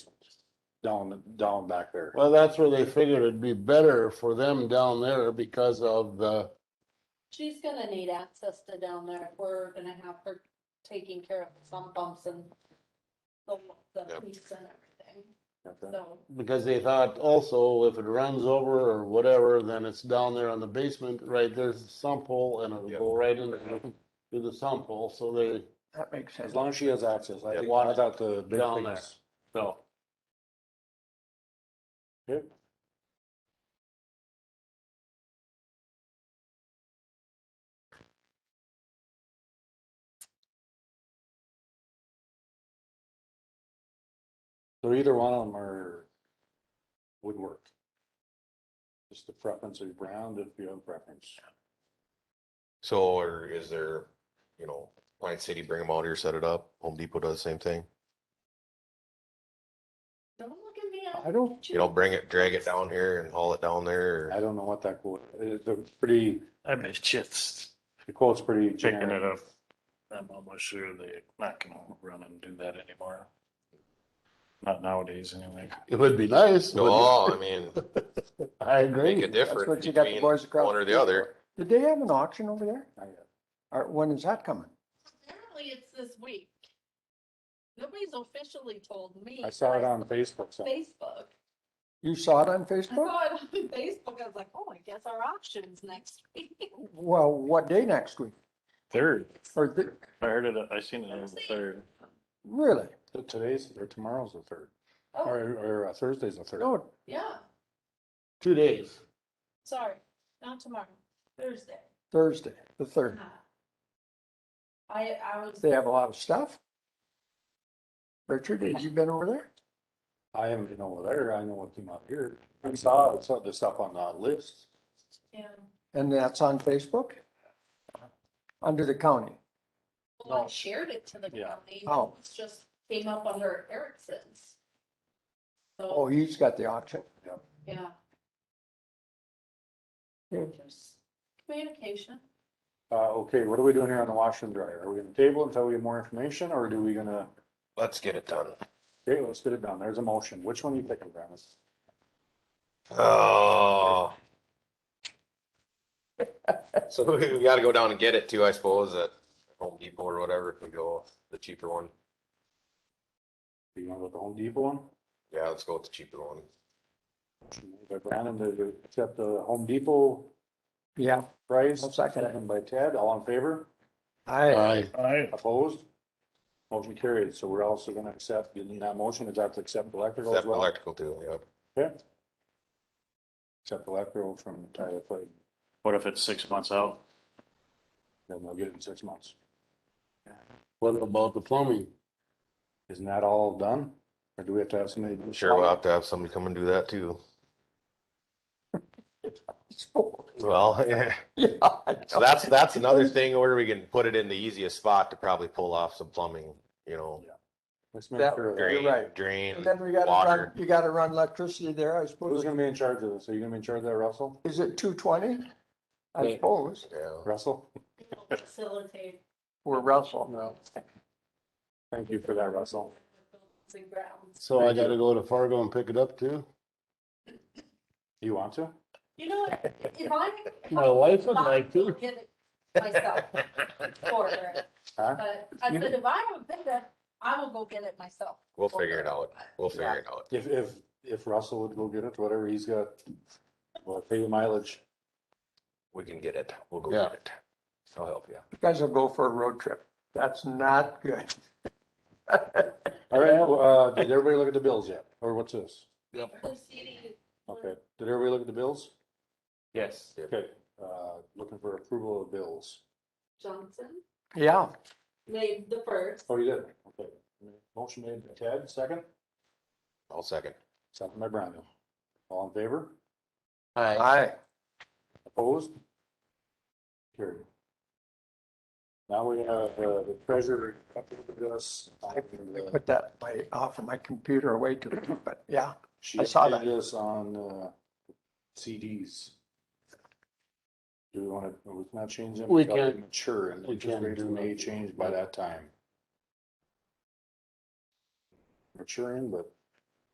down, down back there. Well, that's where they figured it'd be better for them down there because of the, She's gonna need access to down there. if We're gonna have her taking care of some bumps and the, the Yep. piece and everything, Okay. so. because they thought also if it runs over or whatever, then it's down there on the basement, right? There's a sump hole and it'll Yeah. go right into, to the sump hole, so they, That makes sense. As long as she has access, I Yeah. think, I thought the big Down thing there. is- no. Yep. So either one of them are, would work. Just the preference of Brown, if you have preference. So, or is there, you know, Pine City, bring them out here, set it up. Home Depot does the same thing. Don't look at me. I don't You know, bring it, drag it down here and haul it down there. I or- don't know what that quote, it's a pretty, I mean, it's just the quote's pretty picking it generic. up. I'm almost sure they're not gonna run and do that anymore. Not nowadays, anyway. it would be nice. but- No, I mean, I make agree. a That's difference what you got the between boys across. one or the street other. for. Did they have an auction over there? I got it. Or when is that coming? Apparently it's this week. Nobody's officially told me. I saw it but on Facebook, so Facebook. You saw it on I Facebook? saw it on Facebook. I was like, oh, I guess our auction's next week. Well, what day next week? Third, Or, the- I heard it, I seen it on the third. really? so today's, or tomorrow's the third, or, Oh, or uh, Thursday's the third. No, yeah, Two days. sorry, not tomorrow, Thursday. Uh, Thursday, the third. I, I was, They have a lot of stuff? Richard, have you been over there? I haven't been over there, I know what came out here, I saw, I saw the stuff on the list, yeah, And that's on Facebook? Under the county? well, I shared it to the Yeah. county. Oh. It's just came up under Erickson's. So, Oh, he's got the auction. yeah. Yeah. Just Communication. uh, okay, what are we doing here on the washer and dryer, are we gonna table until we have more information, or do we gonna? Let's get it done. Okay, let's get it done, there's a motion, which one are you picking, Brandon? Oh. So we we gotta go down and get it too, I suppose, at Home Depot or whatever, if we go the cheaper one. Do you want to go with the Home Depot one? Yeah, let's go with the cheaper one. Made By Brandon to accept the Home Depot Yeah, price. I'll second it. Seconded By Ted, all in favor? I, I, I Opposed? Motion carried. So we're also gonna accept, you need that motion, is that to accept electrical as Except well? electrical too, yeah. Okay. Accept electrical from Tyler Clayton, What if it's six months out? then they'll get it in six months. what about the plumbing? Isn't that all done? Or do we have to have somebody? do Sure, we'll have to have somebody come and do that too. Well, yeah. So that's, that's another thing where we can put it in the easiest spot to probably pull off some plumbing, you know, Let's make That- sure. that- drain, right. drain, and then we gotta water. run, you gotta run electricity there, I Who's suppose. gonna be in charge of this? Are you gonna be in charge of that, Russell? Is it two twenty? I Yeah. suppose, Yeah. Russell? It'll Facilitate or Russell. No. Thank you for that, Russell. buildings and grounds. So I gotta go to Fargo and pick it up too? You want to? You know, what? if I. My wife would like to. Get it Myself for her. Huh? But I said, if I have a bidder, I will go get it myself. We'll figure it out. We'll Yeah. figure it out. If, if, if Russell would go get it, whatever he's got, well, pay the mileage. We can get it. We'll go Yeah. get it. I'll help you. You guys will go for a road trip. That's not good. All right, well, uh, did everybody look at the bills yet? Or what's this? Proceeding Okay, did everybody look at the bills? Yes. Okay, uh, looking for approval of bills. Johnson Yeah, made the first. Oh, you did? Okay. Motion made by Ted, second, I'll second. second by Brandon. All in favor? I, Opposed? Carried. Now we have uh, the treasurer. updated us uh, on the- put that my, off of my computer away too, but yeah, She I saw that. updated us on uh, CDs. Do we want to, we cannot change them? We until they can't- Mature and we interest can't rates do may that. change by that time. Maturing, but